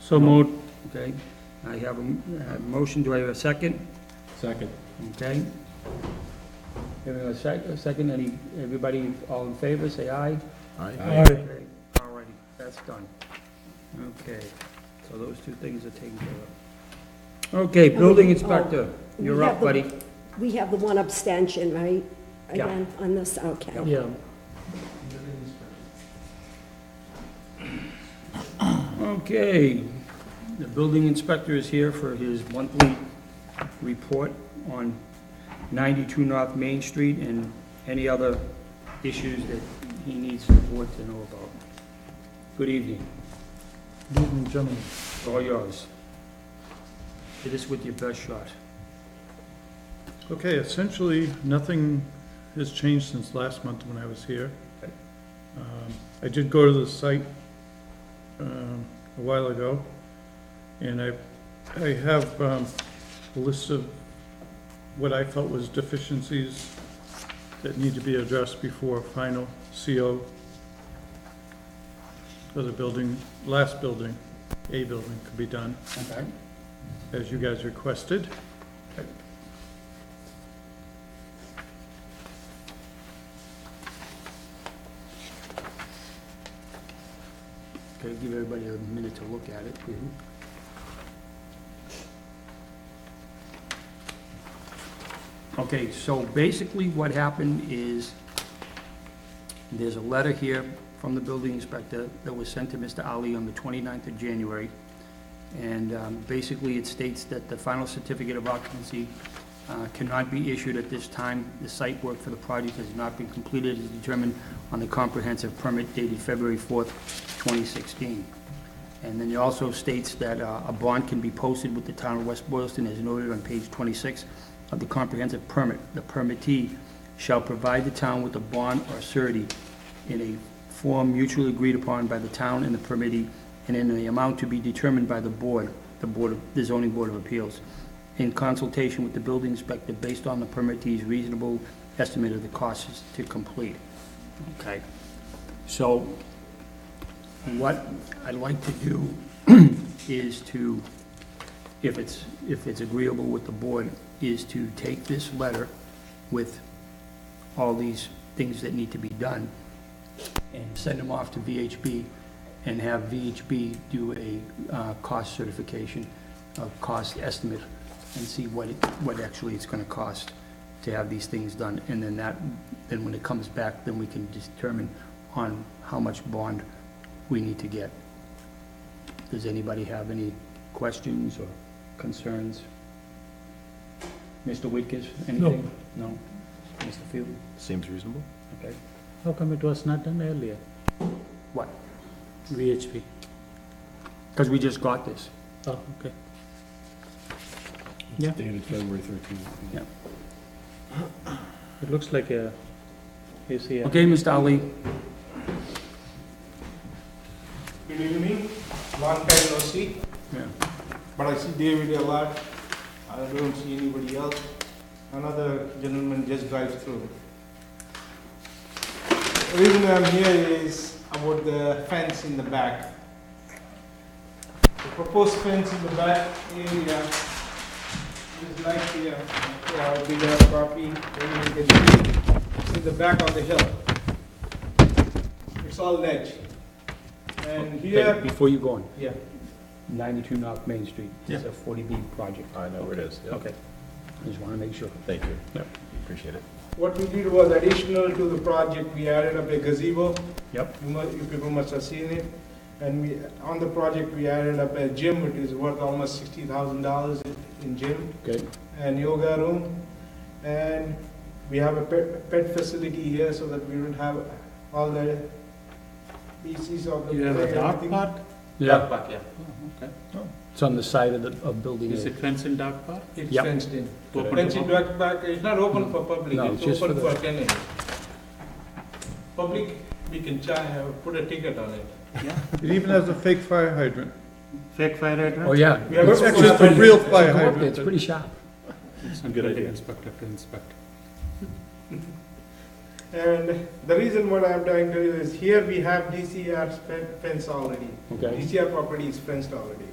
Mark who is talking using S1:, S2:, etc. S1: So moved. Okay, I have a m- a motion, do I have a second?
S2: Second.
S1: Okay. Give it a sec, a second, any, everybody, all in favor, say aye.
S2: Aye.
S1: Okay, All righty, that's done. Okay, so those two things are taken care of. Okay, building inspector, you're up, buddy.
S3: We have the one abstention, right?
S1: Yeah.
S3: Again, on this, okay.
S1: Yeah. Okay, the building inspector is here for his monthly report on 92 North Main Street and any other issues that he needs the board to know about. Good evening,
S4: Good evening, gentlemen.
S1: it's all yours. Hit us with your best shot.
S4: Okay, essentially, nothing has changed since last month when I was here.
S1: Okay.
S4: Um, I did go to the site um, a while ago, and I, I have um, a list of what I felt was deficiencies that need to be addressed before final CO for the building, last building, A building could be done,
S1: Okay.
S4: as you guys requested.
S1: Okay, give everybody a minute to look at it. Okay, so basically what happened is, there's a letter here from the building inspector that was sent to Mr. Ali on the 29th of January. And um, basically, it states that the final certificate of occupancy uh, cannot be issued at this time. The site work for the project has not been completed as determined on the comprehensive permit dated February 4th, 2016. And then it also states that uh, a bond can be posted with the town of West Boylston as noted on page 26 of the comprehensive permit. The permittee shall provide the town with a bond or surety in a form mutually agreed upon by the town and the permittee and in the amount to be determined by the board, the board, of the zoning board of appeals, in consultation with the building inspector based on the permittee's reasonable estimate of the costs to complete. Okay? So Mm-hmm. what I'd like to do is to, if it's, if it's agreeable with the board, is to take this letter with all these things that need to be done and send them off to VHB and have VHB do a uh, cost certification, a cost estimate, and see what, it- what actually it's gonna cost to have these things done. And then that, then when it comes back, then we can determine on how much bond we need to get. Does anybody have any questions or concerns? Mr. Whitkus, anything? No. No? Mr. Field?
S2: Seems reasonable.
S1: Okay.
S5: How come it was not done earlier?
S1: What?
S5: VHP.
S1: Because we just got this.
S5: Oh, okay.
S1: Yeah.
S2: Dated February thirteenth.
S1: Yeah.
S5: It looks like a, you see, a-
S1: Okay, Mr. Ali?
S6: Good evening, long time no see,
S1: Yeah.
S6: but I see David a lot, I don't see anybody else. Another gentleman just drives through. The reason I'm here is about the fence in the back. The proposed fence in the back area is like here, yeah, bigger property, maybe you can see, it's in the back of the hill. It's all ledge. And
S1: Wait,
S6: here,
S1: Before you go on,
S6: yeah.
S1: 92 North Main Street. It's a 40B project.
S2: I know where it is, yeah.
S1: Okay. I just want to make sure.
S2: Thank you.
S1: Yeah.
S2: Appreciate it.
S6: What we did was additional to the project, we added up a gazebo.
S1: Yep.
S6: You mu- you people must have seen it. And we, on the project, we added up a gym, which is worth almost sixty thousand dollars in gym
S1: Okay.
S6: and yoga room. And we have a pet, pet facility here so that we don't have all the pieces of the.
S5: you have a
S6: play,
S5: dog
S6: everything.
S5: park?
S1: Yeah. Oh,
S5: Okay.
S1: It's on the side of the, of building
S5: Is
S1: A.
S5: it fence and dog park?
S6: It's
S1: Yep.
S6: fenced in.
S5: Open to
S6: Fenced in
S5: public?
S6: dog park, it's not open for public,
S1: No,
S6: it's
S1: just for
S6: open
S1: the-
S6: for tenants. Public, we can charge, put a ticket on it.
S4: It even has a fake fire hydrant.
S5: Fake fire
S1: Oh, yeah.
S6: We have
S4: It's
S6: a-
S4: just a real fire
S1: Go up there,
S4: hydrant.
S1: it's pretty sharp.
S2: Good idea.
S5: Inspector to inspect.
S6: And the reason what I'm trying to do is here we have DCR fence already.
S1: Okay.
S6: DCR property is fenced already.